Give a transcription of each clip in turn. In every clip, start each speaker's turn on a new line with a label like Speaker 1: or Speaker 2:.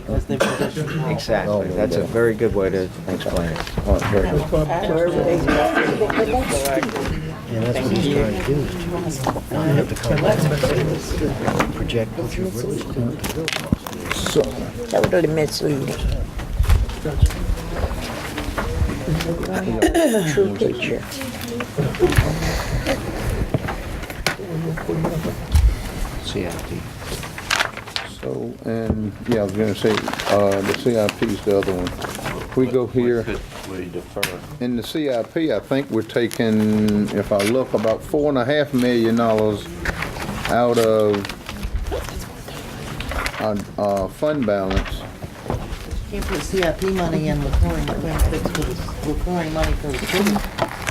Speaker 1: Because the position role.
Speaker 2: Exactly, that's a very good way to explain it.
Speaker 3: Oh, very good.
Speaker 4: Yeah, that's what he's trying to do. is to- Now you have to come back and project what you're really doing.
Speaker 3: So,
Speaker 5: Totally misleading. True picture.
Speaker 2: CIP.
Speaker 3: so, and, yeah, I was gonna say, uh, the CIP's the other one. We go here,
Speaker 6: We defer.
Speaker 3: in the CIP, I think we're taking, if I look, about four and a half million dollars out of our, uh, fund balance.
Speaker 1: Can't put CIP money in recurring, you can't fix for the recurring money for the children.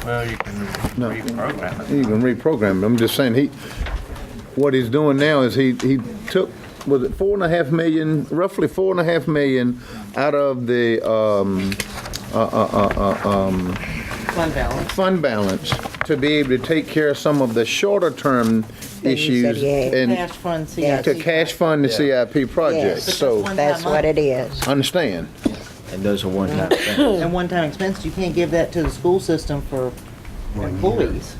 Speaker 6: Well, you can reprogram it.
Speaker 3: You can reprogram it. I'm just saying, he, what he's doing now is he, he took, was it four and a half million, roughly four and a half million out of the, um, uh, uh, uh, uh, um,
Speaker 1: Fund balance.
Speaker 3: fund balance to be able to take care of some of the shorter-term
Speaker 5: he said
Speaker 3: issues
Speaker 5: he had.
Speaker 3: and
Speaker 1: Cash fund
Speaker 5: Yeah,
Speaker 1: CIP.
Speaker 3: to cash fund the CIP project.
Speaker 5: Yes.
Speaker 3: So,
Speaker 1: One
Speaker 5: That's
Speaker 1: time
Speaker 5: what
Speaker 1: money.
Speaker 5: it is.
Speaker 3: understand.
Speaker 2: And those are one-time things.
Speaker 1: And one-time expense, you can't give that to the school system for employees.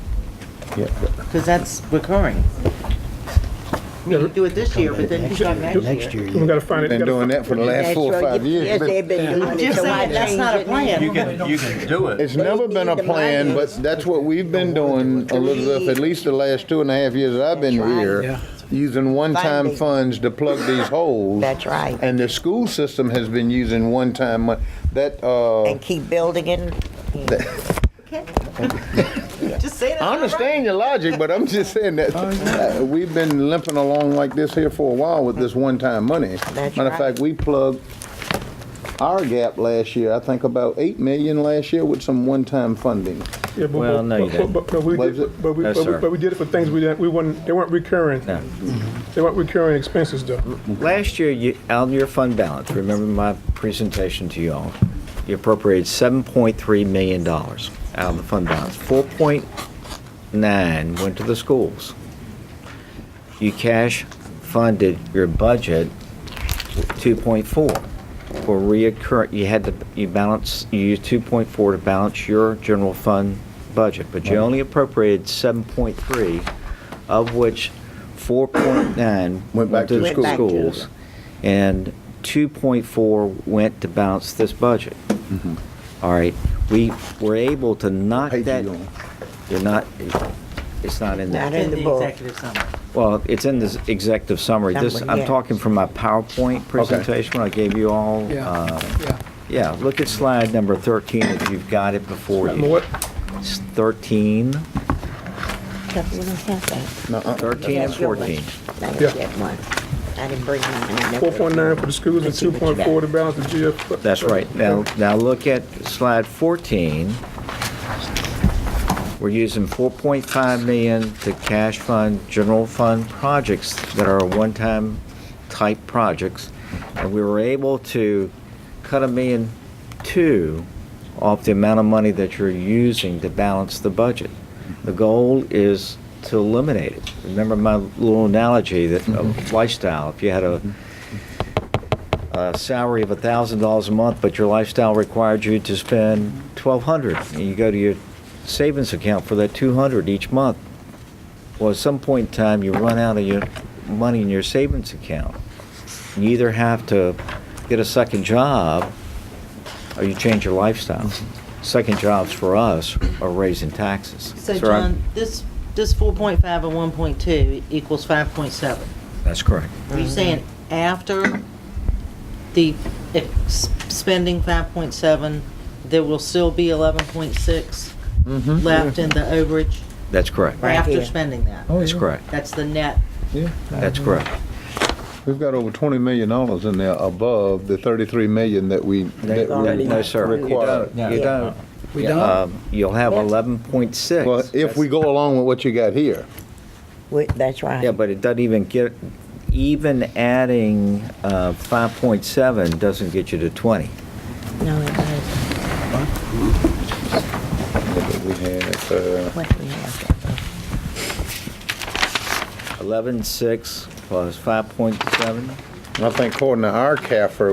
Speaker 3: Yeah.
Speaker 1: Because that's recurring. I mean, You do it this year, but then you start next year.
Speaker 4: Next year,
Speaker 7: We
Speaker 4: you
Speaker 7: gotta find it.
Speaker 3: Been doing that for the last
Speaker 5: That's
Speaker 3: four or
Speaker 5: right.
Speaker 3: five years.
Speaker 5: Yes,
Speaker 3: but
Speaker 5: they've been doing it,
Speaker 1: Just
Speaker 5: so I
Speaker 1: saying, that's
Speaker 5: changed
Speaker 1: not a
Speaker 5: it. now.
Speaker 1: plan.
Speaker 6: You can, you can do it.
Speaker 3: It's never been a plan, but that's what we've been doing, Elizabeth, at least the last two and a half years that I've been here, using one-time funds to plug these holes.
Speaker 5: That's right.
Speaker 3: And the school system has been using one-time, mon- that, uh,
Speaker 5: And keep building it.
Speaker 1: Just say that's not
Speaker 3: I
Speaker 1: right.
Speaker 3: understand your logic, but I'm just saying that uh, we've been limping along like this here for a while with this one-time money.
Speaker 5: That's
Speaker 3: Matter of
Speaker 5: right.
Speaker 3: fact, we plugged our gap last year, I think about eight million last year with some one-time funding.
Speaker 7: Yeah, but-
Speaker 2: Well, no, you
Speaker 7: but-
Speaker 2: didn't.
Speaker 7: But, but we
Speaker 3: Was
Speaker 7: did,
Speaker 3: it?
Speaker 7: but we,
Speaker 2: No,
Speaker 7: but we-
Speaker 2: sir.
Speaker 7: but we did it for things we didn't, we weren't, they weren't recurring.
Speaker 2: No.
Speaker 5: Mm-hmm.
Speaker 7: They weren't recurring expenses though.
Speaker 2: Last year, you, out of your fund balance, remember my presentation to you all, you appropriated $7.3 million out of the fund balance. 4.9 went to the schools. You cash funded your budget 2.4 for reoccur, you had to, you balance, you used 2.4 to balance your general fund budget, but you only appropriated 7.3, of which 4.9
Speaker 3: Went back to
Speaker 2: to
Speaker 3: the
Speaker 2: the
Speaker 5: schools.
Speaker 2: schools, and 2.4 went to balance this budget.
Speaker 3: Mm-hmm.
Speaker 2: All right, we were able to knock
Speaker 3: Page
Speaker 2: that,
Speaker 3: you on.
Speaker 2: you're not, it's not in there.
Speaker 5: Not
Speaker 1: In
Speaker 5: in the
Speaker 1: the
Speaker 5: book.
Speaker 1: executive summary.
Speaker 2: Well, it's in this executive summary. This,
Speaker 5: Summary,
Speaker 2: I'm
Speaker 5: yes.
Speaker 2: talking from my PowerPoint presentation I gave you all. uh, Yeah, look at slide number 13 if you've got it before
Speaker 7: Remember
Speaker 2: you.
Speaker 7: what?
Speaker 2: It's 13,
Speaker 5: That's what I thought.
Speaker 3: Nuh-uh.
Speaker 2: 13 and
Speaker 5: That's your one.
Speaker 2: 14.
Speaker 5: I
Speaker 7: Yeah.
Speaker 5: didn't get one. I didn't bring mine. I never-
Speaker 7: Four point nine for the schools and
Speaker 5: Let's see
Speaker 7: two
Speaker 5: what you
Speaker 7: point
Speaker 5: got.
Speaker 7: four to balance the GF.
Speaker 2: That's right. Now, now look at slide 14. We're using 4.5 million to cash fund general fund projects that are one-time type projects. And we were able to cut a million two off the amount of money that you're using to balance the budget. The goal is to eliminate it. Remember my little analogy that of lifestyle, if you had a a salary of $1,000 a month, but your lifestyle required you to spend 1,200, and you go to your savings account for that 200 each month. Well, at some point in time, you run out of your money in your savings account. You either have to get a second job, or you change your lifestyle. Second jobs for us are raising taxes.
Speaker 1: So
Speaker 2: Sir, I'm-
Speaker 1: John, this, this 4.5 and 1.2 equals 5.7.
Speaker 2: That's correct.
Speaker 1: Are you saying after the ex- spending 5.7, there will still be 11.6 left in the overage
Speaker 2: That's correct.
Speaker 5: Right
Speaker 1: after
Speaker 5: here. Oh.
Speaker 1: spending that?
Speaker 2: That's correct.
Speaker 1: That's the net.
Speaker 3: Yeah.
Speaker 2: That's correct.
Speaker 3: We've got over twenty million dollars in there above the thirty-three million that we, that we
Speaker 2: No, sir, you
Speaker 3: require.
Speaker 2: don't. You don't.
Speaker 4: We don't?
Speaker 2: Um, You'll have eleven point six.
Speaker 3: Well, if we go along with what you got here,
Speaker 5: We- That's right.
Speaker 2: Yeah, but it doesn't even get, even adding uh, five point seven doesn't get you to twenty.
Speaker 5: No, it doesn't.
Speaker 3: we had, uh,
Speaker 5: What we have.
Speaker 2: Eleven six plus five point seven.
Speaker 3: I think according to our CAFR,